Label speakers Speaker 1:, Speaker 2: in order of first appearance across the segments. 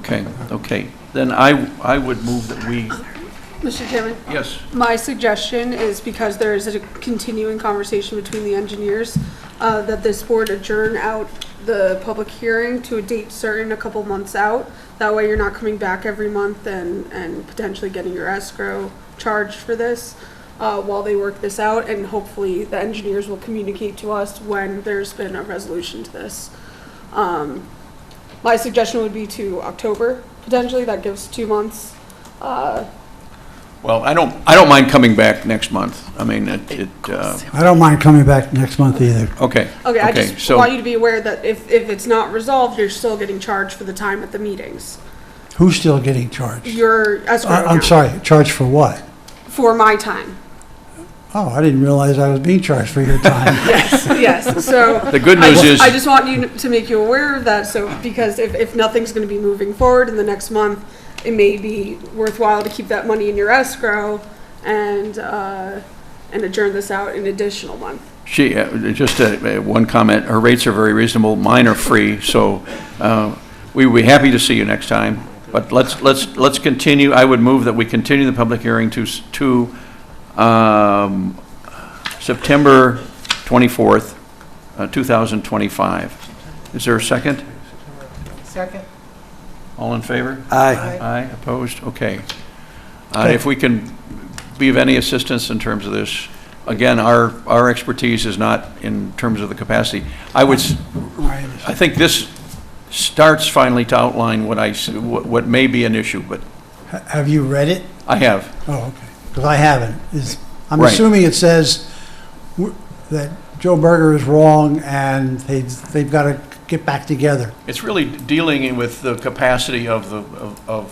Speaker 1: Okay, okay. Then I, I would move that we,
Speaker 2: Mr. Chairman,
Speaker 1: yes,
Speaker 2: my suggestion is because there is a continuing conversation between the engineers, uh, that this board adjourn out the public hearing to a date certain a couple months out. That way you're not coming back every month and, and potentially getting your escrow charged for this uh, while they work this out. And hopefully the engineers will communicate to us when there's been a resolution to this. Um, My suggestion would be to October, potentially, that gives two months. Uh,
Speaker 1: well, I don't, I don't mind coming back next month. I mean, it, it, uh,
Speaker 3: I don't mind coming back next month either.
Speaker 1: okay.
Speaker 2: Okay, I just
Speaker 1: so-
Speaker 2: want you to be aware that if, if it's not resolved, you're still getting charged for the time at the meetings.
Speaker 3: Who's still getting charged?
Speaker 2: Your escrow
Speaker 3: I- I'm
Speaker 2: account.
Speaker 3: sorry, charged for what?
Speaker 2: For my time,
Speaker 3: Oh, I didn't realize I was being charged for your time.
Speaker 2: yes, so.
Speaker 1: The good
Speaker 2: I
Speaker 1: news is-
Speaker 2: just- I just want you to make you aware of that, so, because if, if nothing's gonna be moving forward in the next month, it may be worthwhile to keep that money in your escrow and, uh, and adjourn this out an additional month.
Speaker 1: She, uh, just uh, uh, one comment, her rates are very reasonable, mine are free, so uh, we would be happy to see you next time, but let's, let's, let's continue, I would move that we continue the public hearing to, s- to um, September 24th, uh, 2025. Is there a second?
Speaker 4: Second.
Speaker 1: All in favor?
Speaker 3: Aye.
Speaker 1: Aye, opposed? Okay. Uh, If we can be of any assistance in terms of this, again, our, our expertise is not in terms of the capacity. I would, s-
Speaker 3: I understand.
Speaker 1: I think this starts finally to outline what I, s- what what may be an issue, but
Speaker 3: Ha- Have you read it?
Speaker 1: I have.
Speaker 3: Oh, okay, because I haven't. It's- I'm
Speaker 1: Right.
Speaker 3: assuming it says w- that Joe Berger is wrong and they- they've got to get back together.
Speaker 1: It's really dealing with the capacity of the, of- of,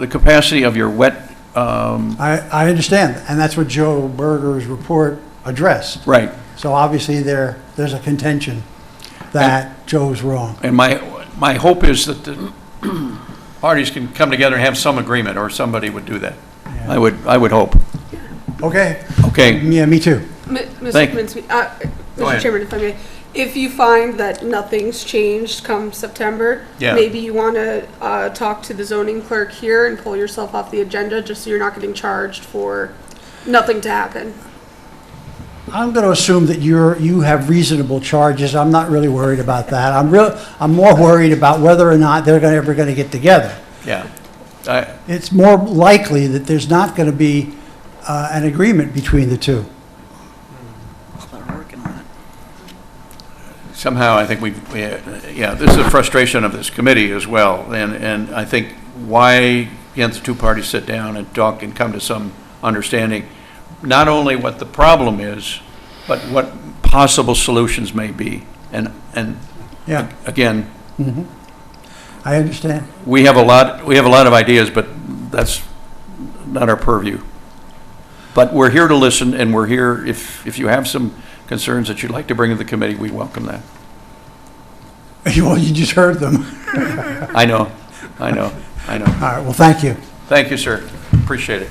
Speaker 1: the capacity of your wet, um,
Speaker 3: I I understand, and that's what Joe Berger's report addressed.
Speaker 1: right.
Speaker 3: So obviously, there, there's a contention that Joe's wrong.
Speaker 1: And my, my hope is that the parties can come together and have some agreement, or somebody would do that. I would, I would hope.
Speaker 3: Okay,
Speaker 1: Okay,
Speaker 3: yeah, me too.
Speaker 2: M- Mr.
Speaker 1: Thank-
Speaker 2: Kaminsky, uh,
Speaker 1: Go ahead.
Speaker 2: Mr. Chairman, if I may, if you find that nothing's changed come September,
Speaker 1: Yeah.
Speaker 2: maybe you want to talk to the zoning clerk here and pull yourself off the agenda, just so you're not getting charged for nothing to happen.
Speaker 3: I'm going to assume that you're, you have reasonable charges. I'm not really worried about that. I'm real, I'm more worried about whether or not they're gonna, ever going to get together.
Speaker 1: yeah. I-
Speaker 3: It's more likely that there's not going to be uh, an agreement between the two.
Speaker 1: Somehow, I think we, we- uh, yeah, this is a frustration of this committee as well, and, and I think why can't the two parties sit down and talk and come to some understanding, not only what the problem is, but what possible solutions may be? And, and
Speaker 3: Yeah,
Speaker 1: again,
Speaker 3: I understand.
Speaker 1: we have a lot, we have a lot of ideas, but that's not our purview. But we're here to listen, and we're here, if, if you have some concerns that you'd like to bring to the committee, we welcome that.
Speaker 3: Well, you just heard them.
Speaker 1: I know, I know, I know.
Speaker 3: All right, well, thank you.
Speaker 1: Thank you, sir. Appreciate it.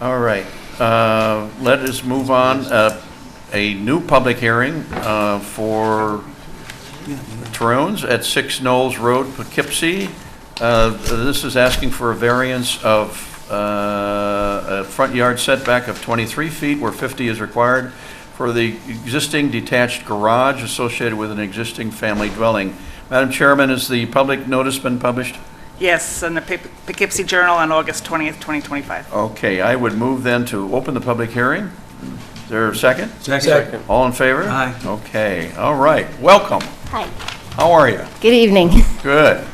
Speaker 1: All right, uh, let us move on. Uh, A new public hearing uh, for Tyrone's at 6 Knolls Road, Poughkeepsie. Uh, This is asking for a variance of uh, a front yard setback of 23 feet where 50 is required for the existing detached garage associated with an existing family dwelling. Madam Chairman, has the public notice been published?
Speaker 4: Yes, in the Poughke- Poughkeepsie Journal on August 20th, 2025.
Speaker 1: Okay, I would move then to open the public hearing. Is there a second? Second. All in favor? Aye. Okay, all right, welcome.
Speaker 5: Hi.
Speaker 1: How are you?
Speaker 5: Good evening.
Speaker 1: Good.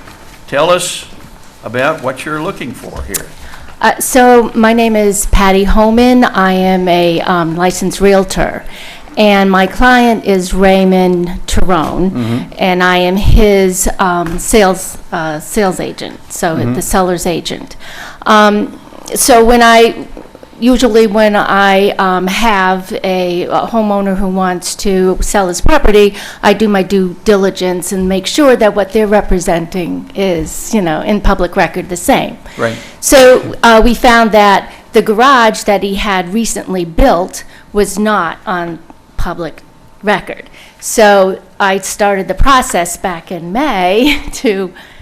Speaker 1: Tell us about what you're looking for here.
Speaker 5: Uh, So my name is Patty Holman. I am a um, licensed Realtor, and my client is Raymond Tyrone, and I am his um, sales, uh, sales agent, so the seller's agent. Um, So when I usually when I um, have a a homeowner who wants to sell his property, I do my due diligence and make sure that what they're representing is, you know, in public record the same.
Speaker 1: Right.
Speaker 5: So uh, we found that the garage that he had recently built was not on public record. So I started the process back in May to